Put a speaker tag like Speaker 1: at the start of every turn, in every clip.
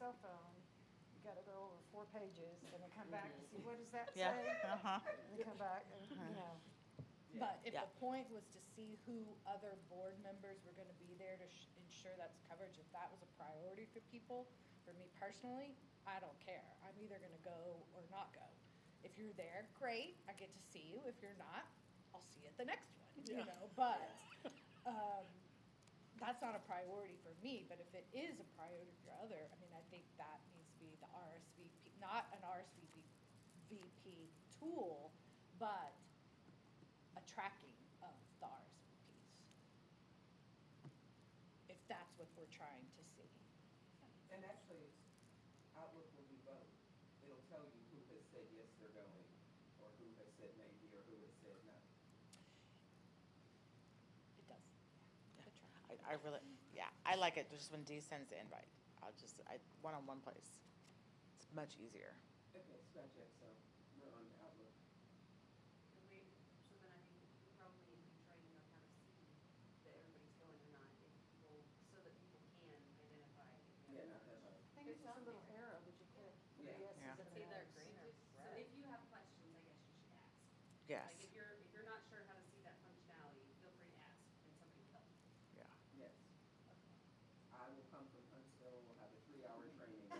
Speaker 1: cell phone, you gotta go over four pages, and then come back and see, what does that
Speaker 2: Yeah,
Speaker 1: say?
Speaker 2: uh-huh.
Speaker 1: And then come back, and, you know,
Speaker 3: But if
Speaker 2: Yeah.
Speaker 3: the point was to see who other board members were gonna be there to sh- ensure that's coverage, if that was a priority for people, for me personally, I don't care. I'm either gonna go or not go. If you're there, great, I get to see you. If you're not, I'll see you at the next one, you know, but, um, that's not a priority for me, but if it is a priority for other, I mean, I think that needs to be the RSVP, not an RSVP VP tool, but a tracking of the RSVPs. If that's what we're trying to see.
Speaker 4: And actually, Outlook will be both. It'll tell you who has said yes, they're going, or who has said maybe, or who has said no.
Speaker 3: It does. yeah, the tracking.
Speaker 2: I, I really, yeah, I like it just when D sends the invite. I'll just, I, one-on-one place. It's much easier.
Speaker 4: Okay, so I checked, so we're on Outlook.
Speaker 5: And we, so then I think we probably need to be training on how to see that everybody's going or not, if people, so that people can identify. if
Speaker 4: Yeah,
Speaker 5: they're
Speaker 4: not that much.
Speaker 1: I think it's just a little arrow that you put, the
Speaker 4: Yeah.
Speaker 1: yeses
Speaker 2: Yeah.
Speaker 1: and the
Speaker 5: It's either
Speaker 1: nos.
Speaker 5: green or So if you have questions, I guess you should ask. Like
Speaker 2: Yes,
Speaker 5: if you're, if you're not sure how to see that functionality, feel free to ask and somebody will help.
Speaker 2: yeah.
Speaker 4: Yes. I will come from Huntsville, we'll have a three-hour training. to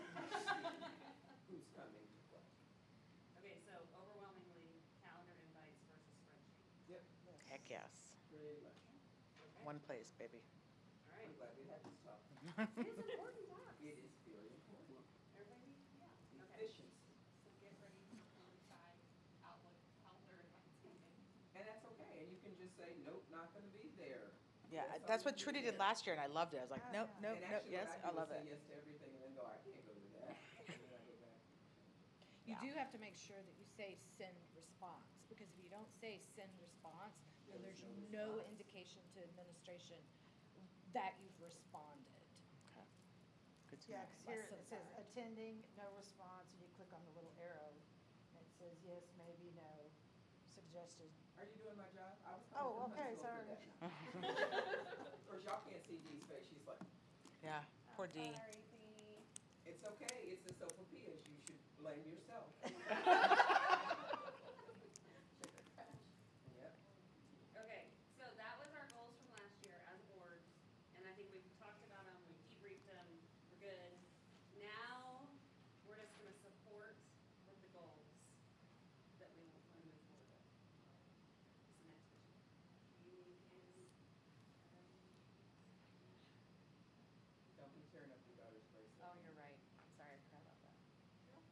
Speaker 4: see Who's coming to what?
Speaker 5: Okay, so overwhelmingly calendar invites versus spreadsheet.
Speaker 4: Yep,
Speaker 2: Heck yes.
Speaker 4: pretty much.
Speaker 5: Okay?
Speaker 2: One place, baby.
Speaker 4: I'm
Speaker 5: All right.
Speaker 4: glad we had this talk.
Speaker 5: It's important to ask.
Speaker 4: It is very important.
Speaker 5: Everybody, yeah, okay.
Speaker 4: Efficiency.
Speaker 6: So get ready to decide Outlook, calendar, and Thanksgiving.
Speaker 4: And that's okay, and you can just say, nope, not gonna be there. Yes,
Speaker 2: Yeah,
Speaker 4: I
Speaker 2: that's what
Speaker 4: will be
Speaker 2: Trudy did
Speaker 4: there.
Speaker 2: last year and I loved it. I was
Speaker 1: Oh,
Speaker 2: like, nope,
Speaker 1: yeah.
Speaker 2: nope,
Speaker 4: And
Speaker 2: nope,
Speaker 4: actually, what
Speaker 2: yes,
Speaker 4: do
Speaker 2: I love
Speaker 4: is
Speaker 2: it.
Speaker 4: Say yes to everything and then go, I can't go to that. And then I go back.
Speaker 3: You
Speaker 2: Yeah.
Speaker 3: do have to make sure that you say send response, because if you don't say send response, then
Speaker 4: There's
Speaker 3: there's
Speaker 4: no
Speaker 3: no
Speaker 4: response.
Speaker 3: indication to administration that you've responded.
Speaker 2: Okay. Good to
Speaker 1: Yeah,
Speaker 2: know.
Speaker 1: because here
Speaker 3: Less
Speaker 1: it
Speaker 3: than
Speaker 1: says
Speaker 3: five.
Speaker 1: attending, no response, and you click on the little arrow, and it says yes, maybe, no, suggested.
Speaker 4: Are you doing my job? I was
Speaker 1: Oh,
Speaker 4: coming from
Speaker 1: okay,
Speaker 4: Huntsville for that. Of course, y'all can't see Dee's face, she's like,
Speaker 2: Yeah, poor
Speaker 6: Sorry,
Speaker 2: D.
Speaker 6: the,
Speaker 4: it's okay, it's the Sophia, you should blame yourself. Yep.
Speaker 5: Okay, so that was our goals from last year as a board, and I think we've talked about them, we debriefed them, we're good. Now, we're just gonna support with the goals that we want to move forward with. It's the next issue. You and,
Speaker 4: Don't be tearing up your daughter's bracelet.
Speaker 7: Oh, you're right. I'm sorry, I forgot about that. It's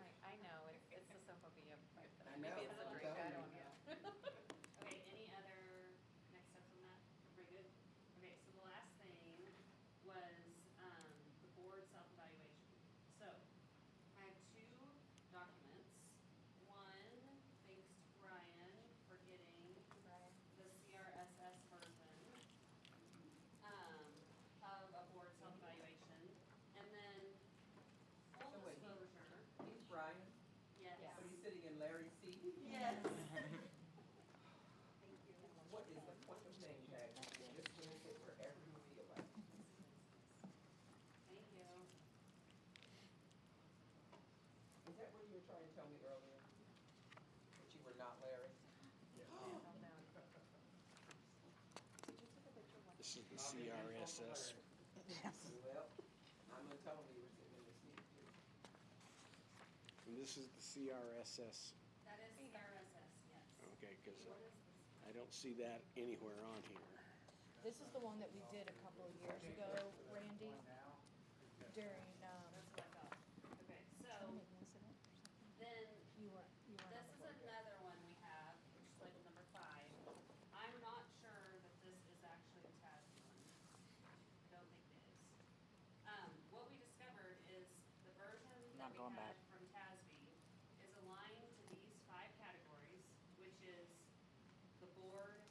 Speaker 7: like, I know, it's, it's the Sophia,
Speaker 4: I
Speaker 7: but
Speaker 4: know,
Speaker 7: maybe it's a
Speaker 4: I'm
Speaker 7: drink,
Speaker 4: telling
Speaker 7: I
Speaker 4: you.
Speaker 7: don't know.
Speaker 5: um, okay, any other next steps on that? Everybody good? Okay, so the last thing was, um, the board self-evaluation. So, I have two documents. One, thanks to Brian for getting the CRSS version um, of a board self-evaluation. And then
Speaker 4: So
Speaker 5: full
Speaker 4: wait.
Speaker 5: disclosure,
Speaker 4: He's Brian,
Speaker 5: yes.
Speaker 4: but he's sitting in Larry's seat.
Speaker 5: Yes. Thank you.
Speaker 4: What is the point of name tag? You're just doing it for every movie you like.
Speaker 5: Thank you.
Speaker 4: Is that what you were trying to tell me earlier? That you were not Larry?
Speaker 8: This is the CRSS.
Speaker 4: Well, I'm gonna tell them you were sitting in the seat too.
Speaker 8: And this is the CRSS.
Speaker 5: That is RSS, yes.
Speaker 8: Okay, because
Speaker 5: What is this?
Speaker 8: I don't see that anywhere on here.
Speaker 3: This is the one that we did a couple of years ago, Randy, during, um,
Speaker 5: Oh, That's what I thought. Okay, so then
Speaker 3: you were, you were.
Speaker 5: this is another one we have, which is labeled number five. I'm not sure that this is actually a TAS one. Don't think it is. Um, what we discovered is the version that
Speaker 2: Not
Speaker 5: we
Speaker 2: going
Speaker 5: had
Speaker 2: back.
Speaker 5: from TASB is aligned to these five categories, which is the board um,